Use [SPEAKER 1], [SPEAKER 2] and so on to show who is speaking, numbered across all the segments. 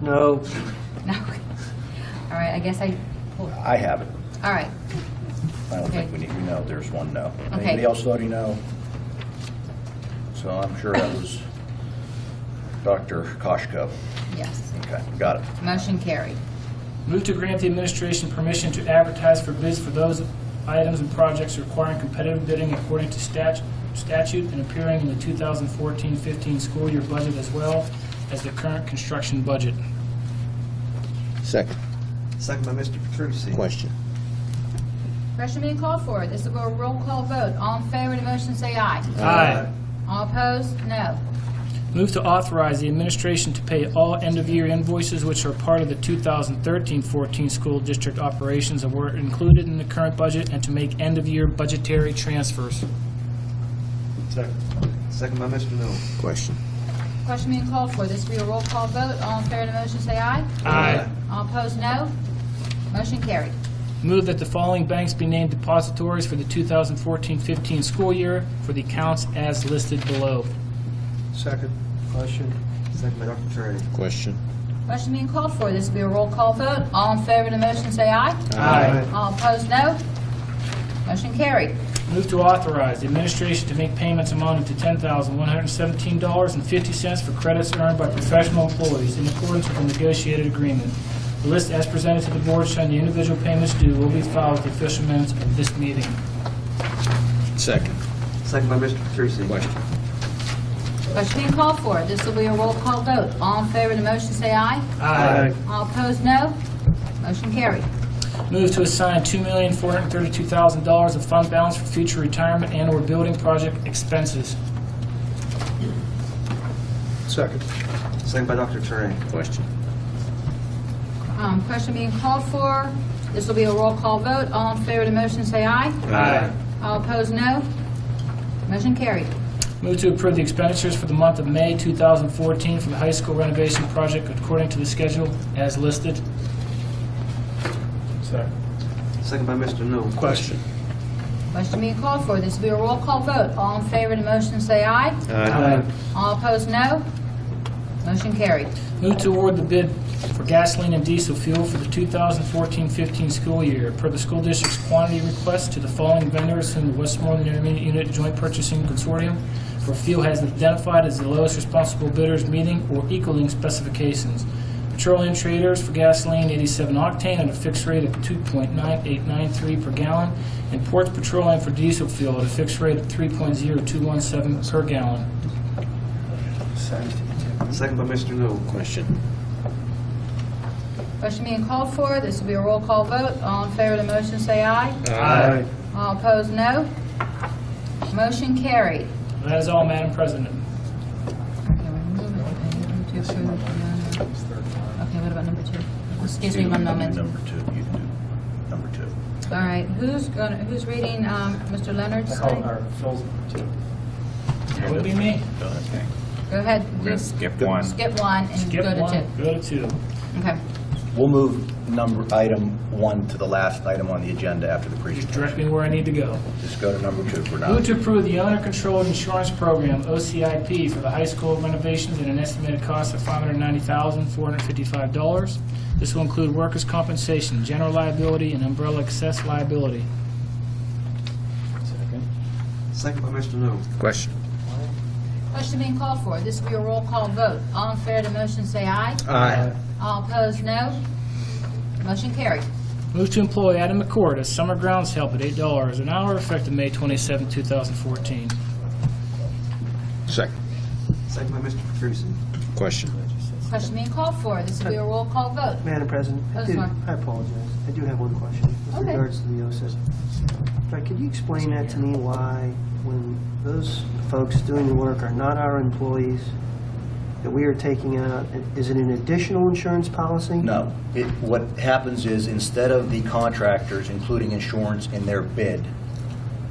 [SPEAKER 1] No.
[SPEAKER 2] No. All right, I guess I, all
[SPEAKER 3] I have it.
[SPEAKER 2] right.
[SPEAKER 3] I don't
[SPEAKER 2] Okay.
[SPEAKER 3] think we need, no, there's one no.
[SPEAKER 2] Okay.
[SPEAKER 3] Anybody else voting no? So I'm sure that was Dr. Koshko.
[SPEAKER 2] Yes.
[SPEAKER 3] Okay, got it.
[SPEAKER 2] Motion carried.
[SPEAKER 4] Move to grant the administration permission to advertise for bids for those items and projects requiring competitive bidding according to stat- statute and appearing in the 2014-15 school year budget as well as the current construction budget.
[SPEAKER 5] Second
[SPEAKER 1] Second by Mr. Petrusi.
[SPEAKER 5] question.
[SPEAKER 2] Question being called for. This will go a roll call vote. All in favor of the motion, say aye.
[SPEAKER 4] Aye.
[SPEAKER 2] All opposed? No.
[SPEAKER 4] Move to authorize the administration to pay all end-of-year invoices which are part of the 2013-14 school district operations and were included in the current budget and to make end-of-year budgetary transfers.
[SPEAKER 1] Second. Second by Mr. Newell.
[SPEAKER 5] Question.
[SPEAKER 2] Question being called for. This will be a roll call vote. All in favor of the motion, say aye.
[SPEAKER 4] Aye.
[SPEAKER 2] All opposed? No. Motion carried.
[SPEAKER 4] Move that the following banks be named depositories for the 2014-15 school year for the accounts as listed below.
[SPEAKER 1] Second. Question. Second by Dr. Trey.
[SPEAKER 5] Question.
[SPEAKER 2] Question being called for. This will be a roll call vote. All in favor of the motion, say aye.
[SPEAKER 4] Aye.
[SPEAKER 2] All opposed? No. Motion carried.
[SPEAKER 4] Move to authorize the administration to make payments amounting to $10,117.50 for credits earned by professional employees in accordance with the negotiated agreement. The list as presented to the board showing the individual payments due will be filed with the official minutes of this meeting.
[SPEAKER 5] Second
[SPEAKER 1] Second by Mr. Petrusi.
[SPEAKER 5] question.
[SPEAKER 2] Question being called for. This will be a roll call vote. All in favor of the motion, say aye.
[SPEAKER 1] Aye.
[SPEAKER 2] All opposed, no. Motion carried.
[SPEAKER 4] Move to assign $2,432,000 of fund balance for future retirement and/or building project expenses.
[SPEAKER 1] Second. Second by Dr. Trey.
[SPEAKER 5] Question.
[SPEAKER 2] Um, Question being called for. This will be a roll call vote. All in favor of the motion, say aye.
[SPEAKER 4] Aye.
[SPEAKER 2] All opposed, no. Motion carried.
[SPEAKER 4] Move to approve the expenditures for the month of May 2014 for the high school renovation project according to the schedule as listed.
[SPEAKER 1] Second by Mr. Newell.
[SPEAKER 5] Question.
[SPEAKER 2] Question being called for. This will be a roll call vote. All in favor of the motion, say aye.
[SPEAKER 1] Aye.
[SPEAKER 2] All opposed, no. Motion carried.
[SPEAKER 4] Move to award the bid for gasoline and diesel fuel for the 2014-15 school year per the school district's quantity request to the following vendors whom the Westmoreland Intermediate Unit Joint Purchasing Consortium for fuel has identified as the lowest responsible bidders meeting or equaling specifications. Petroleum Traders for gasoline 87 octane at a fixed rate of 2.9893 per gallon, and Ports Petroleum for diesel fuel at a fixed rate of 3.0217 per gallon.
[SPEAKER 1] Second by Mr. Newell.
[SPEAKER 5] Question.
[SPEAKER 2] Question being called for. This will be a roll call vote. All in favor of the motion, say aye.
[SPEAKER 1] Aye.
[SPEAKER 2] All opposed, no. Motion carried.
[SPEAKER 4] That is all, Madam President.
[SPEAKER 2] Okay, we're moving to approve the non- Okay, what about number two? Excuse me one moment.
[SPEAKER 3] Number two, you can do number two.
[SPEAKER 2] All right, who's gonna, who's reading, um, Mr. Leonard's thing?
[SPEAKER 4] That would be me.
[SPEAKER 3] Okay.
[SPEAKER 2] Go ahead,
[SPEAKER 6] We're going
[SPEAKER 2] you
[SPEAKER 6] to skip one.
[SPEAKER 2] skip one and
[SPEAKER 4] Skip
[SPEAKER 2] go to
[SPEAKER 4] one,
[SPEAKER 2] two.
[SPEAKER 4] go to two.
[SPEAKER 2] Okay,
[SPEAKER 3] We'll move number, item one to the last item on the agenda after the
[SPEAKER 4] Just
[SPEAKER 3] presentation.
[SPEAKER 4] direct me where I need to go.
[SPEAKER 3] Just go to number two for now.
[SPEAKER 4] Move to approve the owner-controlled insurance program, OCIP, for the high school renovations at an estimated cost of $590,455. This will include workers' compensation, general liability, and umbrella excess liability.
[SPEAKER 1] Second by Mr. Newell.
[SPEAKER 5] Question.
[SPEAKER 2] question being called for, this will be a roll call vote. All in favor of the motion, say aye.
[SPEAKER 5] Aye.
[SPEAKER 2] All opposed, no. Motion carried.
[SPEAKER 4] Move to employ Adam McCord as summer grounds help at $8 an hour effective May 27, 2014.
[SPEAKER 5] Second
[SPEAKER 1] Second by Mr. Petrusi.
[SPEAKER 5] question.
[SPEAKER 2] Question being called for, this will be a roll call vote.
[SPEAKER 7] Madam President,
[SPEAKER 2] Oh,
[SPEAKER 7] I do,
[SPEAKER 2] sorry.
[SPEAKER 7] I apologize. I do have one question with
[SPEAKER 2] Okay.
[SPEAKER 7] regards to the OSIS. Fred, could you explain that to me why, when those folks doing the work are not our employees, that we are taking out, is it an additional insurance policy?
[SPEAKER 3] No. It, what happens is, instead of the contractors including insurance in their bid,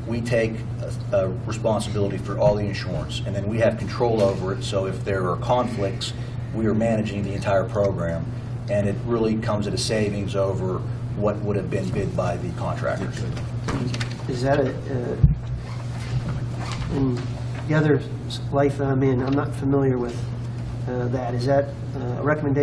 [SPEAKER 3] we take uh, uh, responsibility for all the insurance, and then we have control over it, so if there are conflicts, we are managing the entire program, and it really comes at a savings over what would have been bid by the contractors.
[SPEAKER 7] Is that a, uh, in the other life that I'm in, I'm not familiar with uh, that. Is that uh, a recommendation